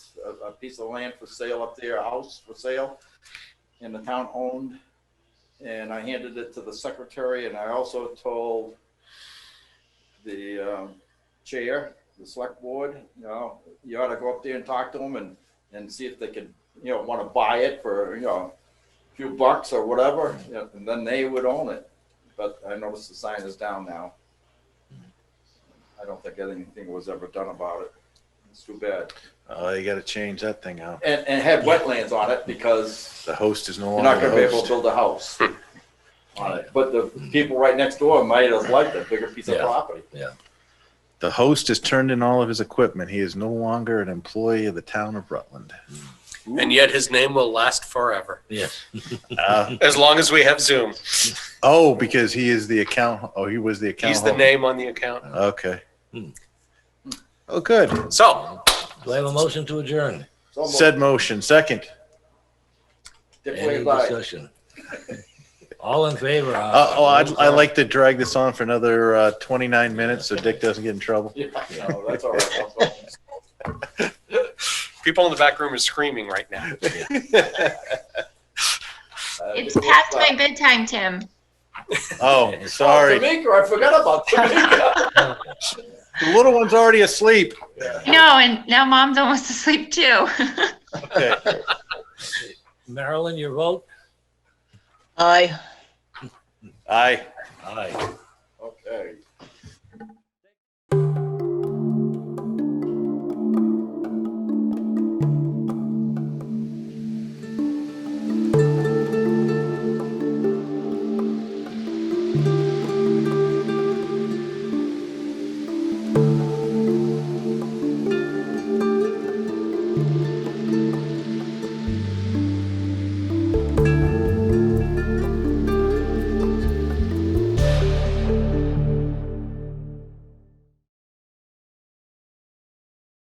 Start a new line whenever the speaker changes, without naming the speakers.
a, a piece of land for sale up there, a house for sale, and the town owned. And I handed it to the secretary, and I also told the um, chair, the select board, you know, you ought to go up there and talk to them and, and see if they could, you know, want to buy it for, you know, a few bucks or whatever, you know, and then they would own it. But I noticed the sign is down now. I don't think anything was ever done about it. It's too bad.
Oh, you gotta change that thing out.
And, and had wetlands on it because
The host is no
you're not
longer
gonna be
the
able to
host. Hmm.
build a house on it. But the people right next door might have liked a bigger piece of
Yeah.
property.
The host has turned in all of his equipment. He is no longer an employee of the town of Rutland.
And yet his name will last forever.
Ah.
Uh,
As long as we have Zoom,
oh, because he is the account, oh, he was the account.
he's the
holder.
name on the account.
Okay.
Hmm.
Oh, good.
So,
Do I have a motion to adjourn?
So
Said motion, second.
Dick
Any
Wade's aye.
discussion? All in favor?
Ah,
Uh, oh, I'd, I'd like to drag this on for another, uh, twenty-nine minutes so Dick doesn't get in trouble.
Yeah, no, that's all right. I'll go.
people in the back room are screaming right now.
Oh,
Uh, Dick Wade's
It's past
aye.
my bedtime, Tim.
Oh,
Oh,
sorry.
Tamika, I forgot about Tamika.
The little one's already asleep.
No, and now mom's almost asleep too.
Okay.
Marilyn, your vote?
Aye.
Aye.
Aye.
Okay.